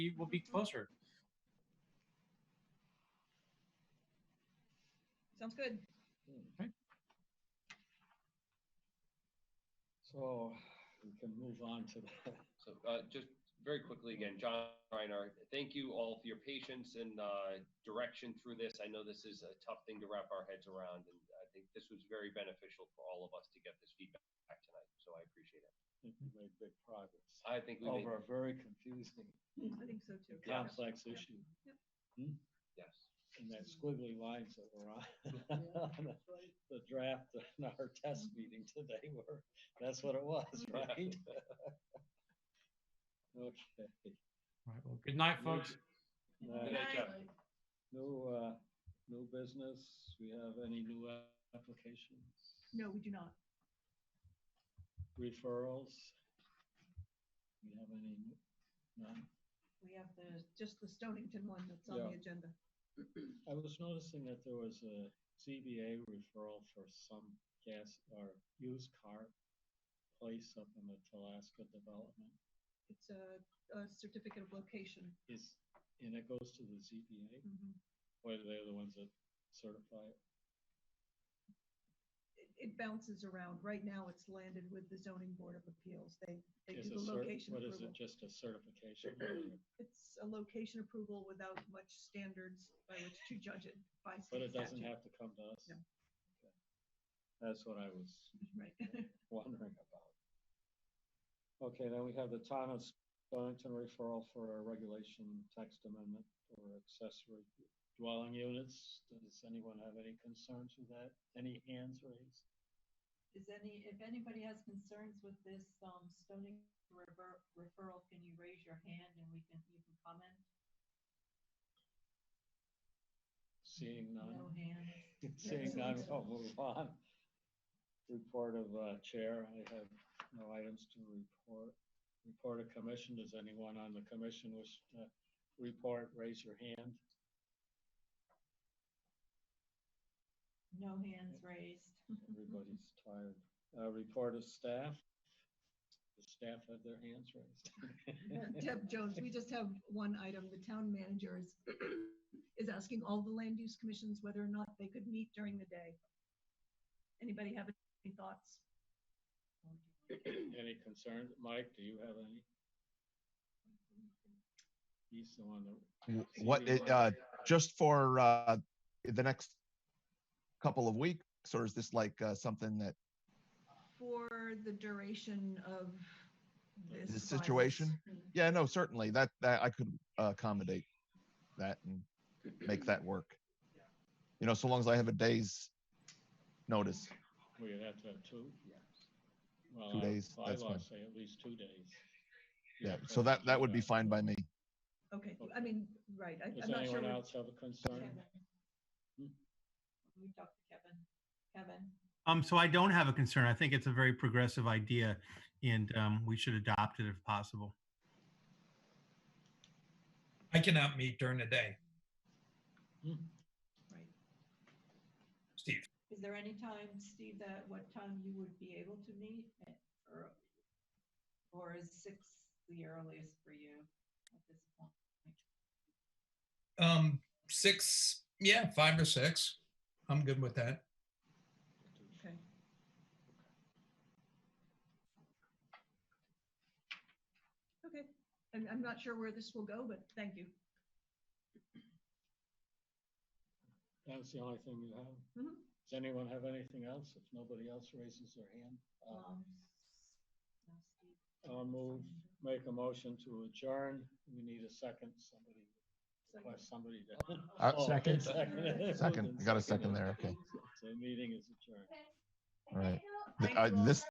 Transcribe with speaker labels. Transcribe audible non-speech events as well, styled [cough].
Speaker 1: be, we'll be closer.
Speaker 2: Sounds good.
Speaker 3: So we can move on to [laughs] that.
Speaker 4: So uh, just very quickly again, John Reiner, thank you all for your patience and uh, direction through this. I know this is a tough thing to wrap our heads around, and I think this was very beneficial for all of us to get this feedback tonight, so I appreciate it.
Speaker 3: I think we made big progress
Speaker 4: I think we made,
Speaker 3: over a very confusing,
Speaker 2: I think so too.
Speaker 4: Yeah.
Speaker 3: complex issue
Speaker 4: yes.
Speaker 3: and that squiggly lines that were [laughs] on the draft in our test meeting today were, that's what it was, right? [laughs] Okay.
Speaker 1: All right, well, good night, folks.
Speaker 3: Now,
Speaker 4: Good night,
Speaker 2: Aye.
Speaker 4: Jeff.
Speaker 3: No, uh, no business. We have any new applications?
Speaker 2: No, we do not.
Speaker 3: Referrals? We have any? new- None?
Speaker 2: We have the, just the Stonington one that's on the
Speaker 3: Yeah.
Speaker 2: agenda.
Speaker 3: I was noticing that there was a CBA referral for some gas or used car place up in the Talaska development.
Speaker 2: It's a, a certificate of location.
Speaker 3: Is, and it goes to the ZBA,
Speaker 2: Mhm.
Speaker 3: or they're the ones that certify it?
Speaker 2: It, it bounces around. Right now, it's landed with the zoning board of appeals. They, they
Speaker 3: Is
Speaker 2: do
Speaker 3: a
Speaker 2: the
Speaker 3: cert-
Speaker 2: location
Speaker 3: What is
Speaker 2: approval.
Speaker 3: it, just a certification? letter?
Speaker 2: It's a location approval without much standards by which to judge it by state
Speaker 3: But it doesn't
Speaker 2: statute.
Speaker 3: have to come to us?
Speaker 2: No.
Speaker 3: Okay. That's what I was
Speaker 2: Right.
Speaker 3: wondering about. Okay, then we have the town of Stonington referral for a regulation text amendment for accessory dwelling units. Does anyone have any concerns with that? Any hands raised?
Speaker 5: Is any, if anybody has concerns with this, um, Stony River referral, can you raise your hand and we can, you can comment?
Speaker 3: Seeing
Speaker 5: No
Speaker 3: none,
Speaker 5: hands.
Speaker 3: seeing none, we'll move on. Report of uh, chair, I have no items to report. Report of commission, does anyone on the commission wish to report? Raise your hand.
Speaker 5: No hands raised.
Speaker 3: Everybody's tired. Uh, report of staff. The staff had their hands
Speaker 2: [laughs]
Speaker 3: raised.
Speaker 2: Deb Jones, we just have one item. The town manager is, is asking all the land use commissions whether or not they could meet during the day. Anybody have any thoughts?
Speaker 3: Any concerns? Mike, do you have any? He's the one that.
Speaker 6: W- What, it, uh, just for, uh, the next couple of weeks, or is this like, uh, something that,
Speaker 2: For the duration of this.
Speaker 6: the
Speaker 2: virus.
Speaker 6: situation? Yeah, no, certainly, that, that, I could accommodate that and make that work. You know, so long as I have a day's notice.
Speaker 3: We'd have to have two? Yes. Well,
Speaker 6: Two days,
Speaker 3: I
Speaker 6: that's fine.
Speaker 3: say at least two days.
Speaker 6: Yeah, so that, that would be fine by me.
Speaker 2: [laughs] Okay, I mean, right, I-
Speaker 3: Does
Speaker 2: I'm not sure.
Speaker 3: anyone Hmm?
Speaker 2: what-
Speaker 3: else have a concern?
Speaker 5: Kevin. We talked to Kevin. Kevin,
Speaker 7: Um, so I don't have a concern. I think it's a very progressive idea and, um, we should adopt it if possible.
Speaker 8: I cannot meet during the day,
Speaker 2: right.
Speaker 8: Steve.
Speaker 5: is there any time, Steve, that what time you would be able to meet? at- Or, or is six the earliest for you at this point?
Speaker 8: Um, six, yeah, five or six. I'm good with that.
Speaker 2: Okay. Okay, I'm, I'm not sure where this will go, but thank you.
Speaker 3: That's the only thing you have?
Speaker 2: Mhm.
Speaker 3: Does anyone have anything else? If nobody else raises their hand? uh,
Speaker 5: Um, no, Steve.
Speaker 3: I'll move, make a motion to adjourn. We need a second, somebody,
Speaker 2: Second.
Speaker 3: request somebody to.
Speaker 6: Uh,
Speaker 3: Oh, [laughs]
Speaker 6: second.
Speaker 3: seconded.
Speaker 6: Second, I got a second there, okay,
Speaker 3: So the meeting is adjourned.
Speaker 6: all right. Th- uh, This,